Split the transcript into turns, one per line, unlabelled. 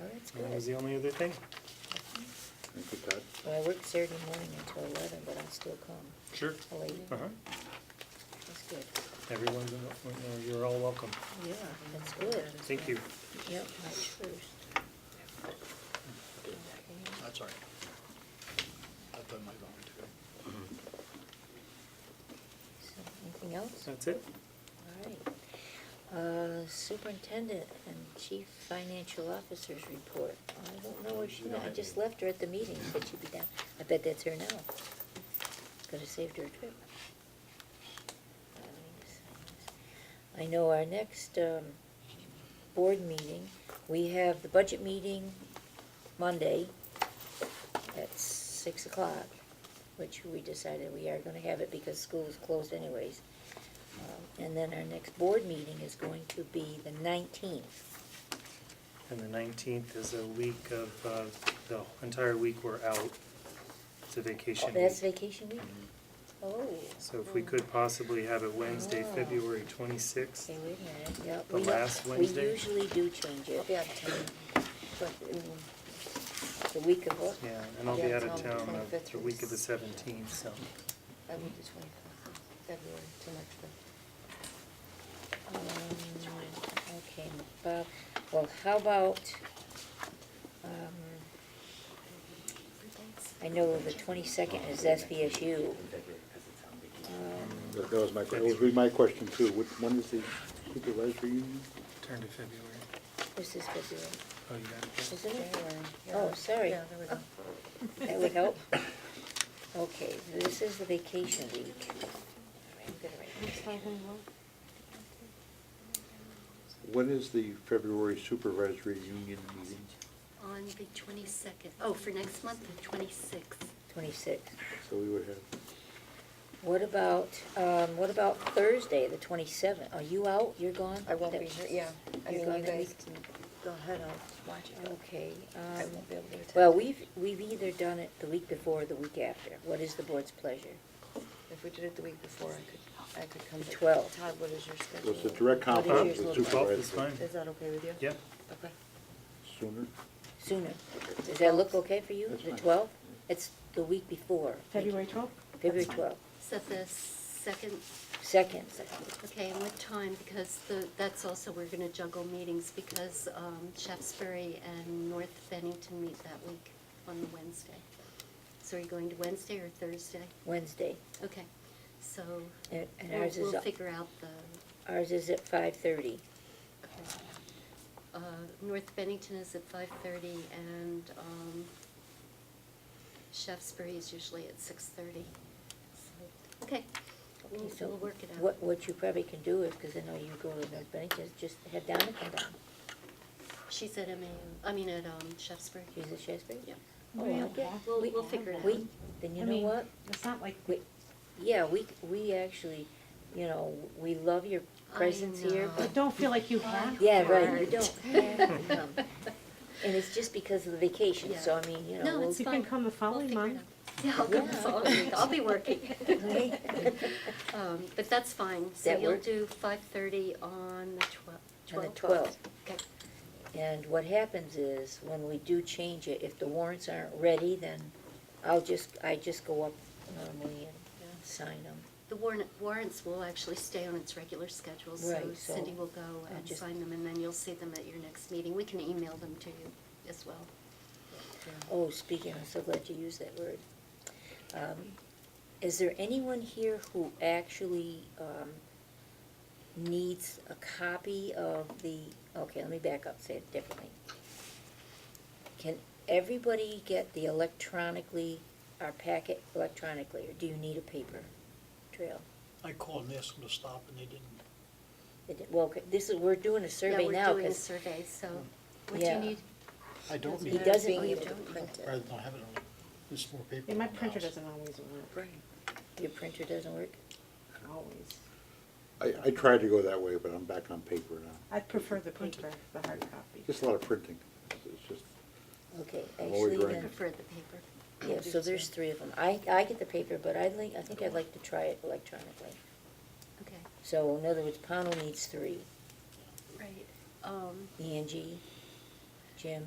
Oh,
And that was the only other thing.
Thank you, Todd.
Well, I work Saturday morning until eleven, but I'll still come.
Sure.
Late,
Uh-huh.
that's good.
Everyone's, in the- well, you're all welcome.
Yeah, that's good.
Thank you.
Yep, March first.
That's all right. I've done my volunteer.
Anything else?
That's it?
All right. Uh, Superintendent and Chief Financial Officer's report. I don't know where she went. I just left her at the meeting, said she'd be down. I bet that's her now. Could have saved her a trip. I know our next um, board meeting, we have the budget meeting Monday at six o'clock, which we decided we are gonna have it because school is closed anyways. Um, And then our next board meeting is going to be the nineteenth.
And the nineteenth is a week of, uh, the entire week we're out. It's a vacation week.
Oh,
Mm-hmm.
That's vacation week? Oh.
So if we could possibly have it Wednesday,
Oh.
February twenty-sixth.
Okay, wait a minute, yeah.
The
we-
last Wednesday?
We usually do change it. But, um, The week of what?
Yeah, and I'll be
Yeah,
out of
it's on the
town uh,
25th
the week of the
is-
seventeenth, so.
I would just wait for February, too much for.
Um, Okay, Bob, well, how about, um, I know the twenty-second is SVSU. Um,
That that was my, que- that would be my question too. Which, when is the supervisor union?
Turn to February.
This is February,
Oh, you got it.
isn't it?
February, yeah.
Oh, sorry.
Yeah, there we go.
That would help. Okay, this is the vacation week.
Mm-hmm.
When is the February supervisory union meeting?
On the twenty-second, oh, for next month, the twenty-sixth.
Twenty-six.
So we would have,
What about, um, what about Thursday, the twenty-seventh? Are you out? You're gone?
I won't
That-
be here, yeah. I
You're
mean,
gone
you
that
guys
week?
can go ahead and watch it. but
Okay,
I
um,
won't be able to attend.
well, we've, we've either done it the week before or the week after. What is the board's pleasure?
If we did it the week before, I could, I could come.
The
but
12th.
Todd, what is your schedule?
was the direct
What is
conflict
yours
with
look like?
Twelfth is
supervisor
fine.
Is that okay with you?
Yeah,
Okay.
sooner?
Sooner? Does that look okay for you?
That's
The
fine.
twelfth? It's the week before.
February 12th?
February twelfth.
Is that the second?
Second.
Okay, and what time? Because the, that's also, we're gonna juggle meetings because, um, Shaftesbury and North Bennington meet that week on the Wednesday. So are you going to Wednesday or Thursday?
Wednesday.
Okay, so
And and
we'll,
ours is,
we'll figure out the,
ours is at five-thirty.
okay. Uh, North Bennington is at five-thirty and, um, Shaftesbury is usually at six-thirty. Okay, we'll,
So
we'll work it out.
What, what you probably can do is, because I know you go to North Bennington, is just head down and come down.
She's at MAU, I mean at um, Shaftesbury.
She's at Shasbury?
Yeah.
Oh,
We
I
don't
get-
have
We'll,
to
we'll
have
figure it
that.
out.
We, then you
I
know
mean,
what?
It's not like,
We, yeah, we, we actually, you know, we love your
I
presence here,
know.
I
but,
don't feel like you have.
yeah, right, you
Hard.
don't have to come. And it's just because of the vacation,
Yeah.
so I mean, you know.
No,
we'll-
it's
You
fine.
can come the
We'll
following
figure it
month.
out. Yeah, I'll go the
Yeah.
following week, I'll be working.
Okay.
Um, But that's fine, so
That
you'll
work?
do five thirty on the twelfth.
On the 12th.
Okay,
And what happens is, when we do change it, if the warrants aren't ready, then I'll just, I just go up normally
Yeah.
and sign them.
the warrant, warrants will actually stay on its regular schedule, so
Right, so
Cindy will go
I'll
and
just-
sign them, and then you'll see them at your next meeting. We can email them to you as well.
Oh, speaking, I'm so glad you used that word. Um, Is there anyone here who actually um, needs a copy of the, okay, let me back up, say it differently. Can everybody get the electronically, our packet electronically, or do you need a paper trail?
I called and asked them to stop and they didn't.
It- Well, okay, this is, we're doing a survey now,
Yeah, we're doing a
because
survey, so what do you
Yeah.
need?
I don't
he
need it,
Oh,
doesn't
Being
need
able
it.
to print
rather
it.
than have it on, this more paper.
Yeah, my
on the
printer
house.
doesn't always work,
Right.
Your printer doesn't work?
always.
I, I tried to go that way, but I'm back on paper now.
I prefer the paper, the hard copy.
Just a lot of printing. It's- It's just,
Okay,
I'm always
actually,
writing.
then,
Prefer the paper.
yeah, so there's three of them. I, I get the paper, but I'd like, I think I'd like to try it electronically.
Okay,
So in other words, Pownell needs three,
right. Um,
Angie, E Jim,